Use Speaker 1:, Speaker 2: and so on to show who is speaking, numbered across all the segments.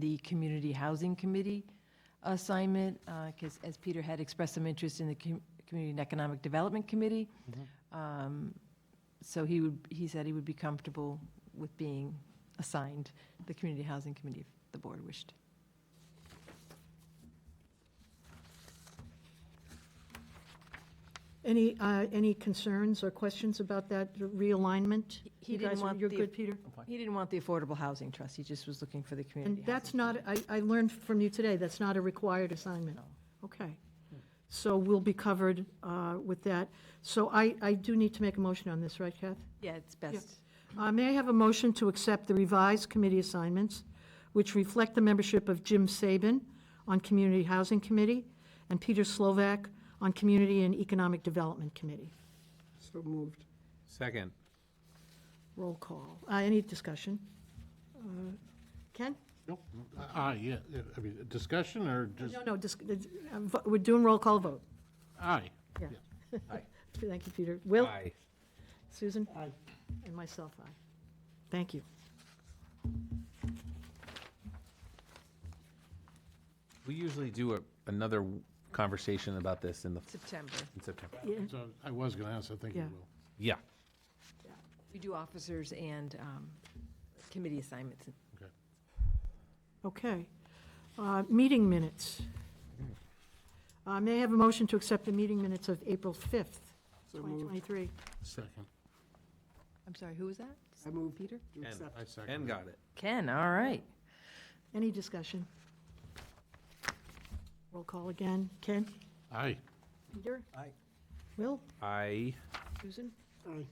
Speaker 1: the Community Housing Committee assignment, because as Peter had expressed some interest in the Com- Community and Economic Development Committee. Um, So he would, he said he would be comfortable with being assigned the Community Housing Committee if the board wished.
Speaker 2: Any, uh, any concerns or questions about that realignment?
Speaker 1: He
Speaker 2: You
Speaker 1: didn't
Speaker 2: guys-
Speaker 1: want
Speaker 2: You're
Speaker 1: the-
Speaker 2: good, Peter?
Speaker 1: He didn't want the Affordable Housing Trust, he just was looking for the Community
Speaker 2: And
Speaker 1: Housing.
Speaker 2: that's not, I, I learned from you today, that's not a required assignment. Okay. So we'll be covered uh, with that. So I, I do need to make a motion on this, right, Kath?
Speaker 1: Yeah, it's best.
Speaker 2: Uh, May I have a motion to accept the revised committee assignments, which reflect the membership of Jim Saban on Community Housing Committee and Peter Slovak on Community and Economic Development Committee?
Speaker 3: So moved.
Speaker 4: Second.
Speaker 2: Roll call. Uh, Any discussion? Uh, Ken?
Speaker 5: Nope. Ah, yeah, I mean, discussion or just,
Speaker 2: No, no, dis- uh, vo- we're doing roll call vote.
Speaker 5: aye.
Speaker 2: Yeah.
Speaker 4: Aye.
Speaker 2: Thank you, Peter. Will?
Speaker 4: Aye.
Speaker 2: Susan? Aye. And myself, aye. Thank you.
Speaker 4: We usually do a- another conversation about this in the,
Speaker 1: September.
Speaker 4: in September.
Speaker 5: So I was going to ask, I think you
Speaker 2: Yeah.
Speaker 5: will.
Speaker 4: Yeah.
Speaker 1: We do officers and um, committee assignments.
Speaker 5: Okay.
Speaker 2: Okay. Uh, Meeting minutes. Uh, May I have a motion to accept the meeting minutes of April 5th,
Speaker 3: So moved.
Speaker 2: 2023?
Speaker 5: Second.
Speaker 1: I'm sorry, who was that?
Speaker 3: I moved.
Speaker 1: Peter?
Speaker 3: to accept.
Speaker 5: I second.
Speaker 4: Ken
Speaker 5: it.
Speaker 4: got it.
Speaker 1: Ken, all right.
Speaker 2: Any discussion? Roll call again. Ken?
Speaker 5: Aye.
Speaker 2: Peter?
Speaker 3: Aye.
Speaker 2: Will?
Speaker 4: I,
Speaker 2: Susan?
Speaker 3: Aye.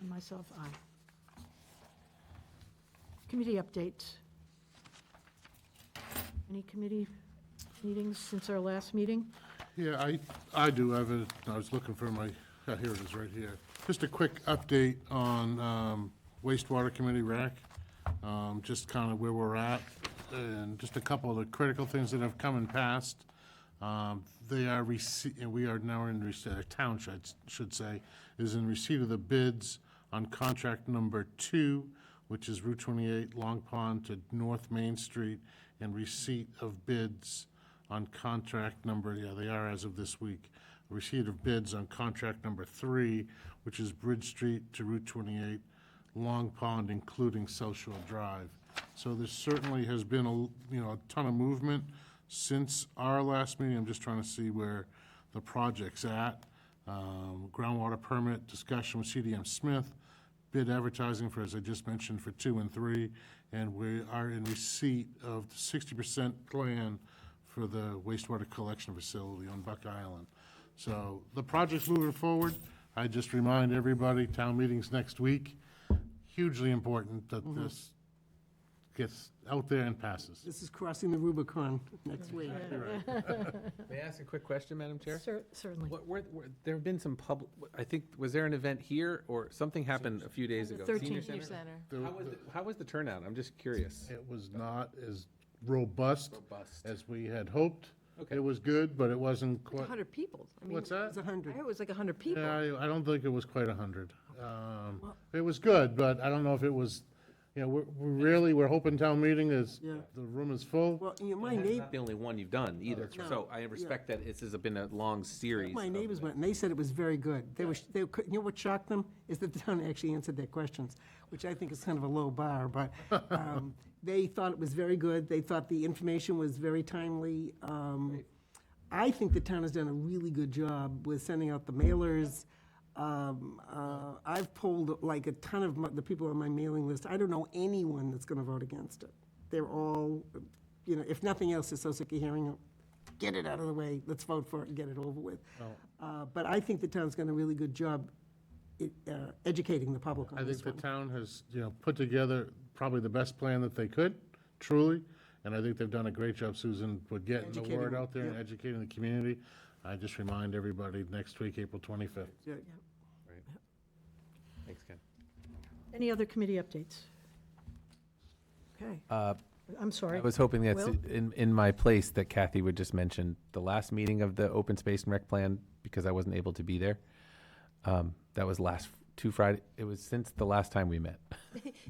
Speaker 2: And myself, aye. Committee updates. Any committee meetings since our last meeting?
Speaker 5: Yeah, I, I do have it, I was looking for my, ah, here it is, right here. Just a quick update on um, wastewater committee rack, um, just kind of where we're at, and just a couple of the critical things that have come and passed. Um, They are receipt, and we are now in, rece- uh, town should, should say, is in receipt of the bids on contract number two, which is Route 28, Long Pond to North Main Street, and receipt of bids on contract number, yeah, they are as of this week, receipt of bids on contract number three, which is Bridge Street to Route 28, Long Pond, including South Shore Drive. So there certainly has been, a l- you know, a ton of movement since our last meeting. I'm just trying to see where the project's at. Um, Groundwater permit discussion with CDM Smith, bid advertising for, as I just mentioned, for two and three, and we are in receipt of the sixty percent plan for the wastewater collection facility on Buck Island. So the project's moving forward. I just remind everybody, town meeting's next week. Hugely important that this gets out there and passes.
Speaker 3: This is crossing the Rubicon next week.
Speaker 4: May I ask a quick question, Madam Chair?
Speaker 2: Cer- Certainly.
Speaker 4: What, were, were- there have been some public, I think, was there an event here or something happened a few days ago? Senior Center?
Speaker 2: 13th.
Speaker 1: Senior Center.
Speaker 5: There-
Speaker 4: How was, the- how was the turnout? I'm just curious.
Speaker 5: It was not as robust
Speaker 4: Robust.
Speaker 5: as we had hoped.
Speaker 4: Okay.
Speaker 5: It was good, but it wasn't quite,
Speaker 1: 100 people. I mean,
Speaker 5: what's
Speaker 1: I
Speaker 5: that?
Speaker 3: It's a hundred.
Speaker 1: heard it was like 100 people.
Speaker 5: Yeah, I, I don't think it was quite a hundred. Um, It was good, but I don't know if it was, you know, we're, we're really, we're hoping town meeting is,
Speaker 3: Yeah.
Speaker 5: the room is full.
Speaker 3: Well, you know, my
Speaker 4: And that's
Speaker 3: neighbor,
Speaker 4: not the only one you've done either, so I respect that this has been a long series.
Speaker 3: my
Speaker 4: of-
Speaker 3: neighbors went, and they said it was very good. They were, sh- they, could- you know what shocked them? Is that the town actually answered their questions, which I think is kind of a low bar, but um, they thought it was very good. They thought the information was very timely. Um, I think the town has done a really good job with sending out the mailers. Um, uh, I've polled like a ton of my- the people on my mailing list. I don't know anyone that's going to vote against it. They're all, you know, if nothing else, they're so sick of hearing it. Get it out of the way. Let's vote for it and get it over with.
Speaker 5: Oh.
Speaker 3: Uh, But I think the town's done a really good job i- uh, educating the public
Speaker 5: I
Speaker 3: on
Speaker 5: think
Speaker 3: this
Speaker 5: the
Speaker 3: one.
Speaker 5: town has, you know, put together probably the best plan that they could, truly. And I think they've done a great job, Susan, with getting the
Speaker 3: Educating,
Speaker 5: word out there and
Speaker 3: yeah.
Speaker 5: educating the community. I just remind everybody, next week, April twenty-fifth.
Speaker 3: Yeah.
Speaker 4: Thanks, Ken.
Speaker 2: Any other committee updates? Okay. I'm sorry.
Speaker 4: I was hoping that's
Speaker 2: Will?
Speaker 4: in, in my place that Kathy would just mention the last meeting of the open space and rec plan because I wasn't able to be there. Um, that was last two Friday. It was since the last time we met.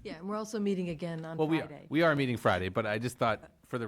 Speaker 1: Yeah, and we're also meeting again on
Speaker 4: Well, we are,
Speaker 1: Friday.
Speaker 4: we are meeting Friday, but I just thought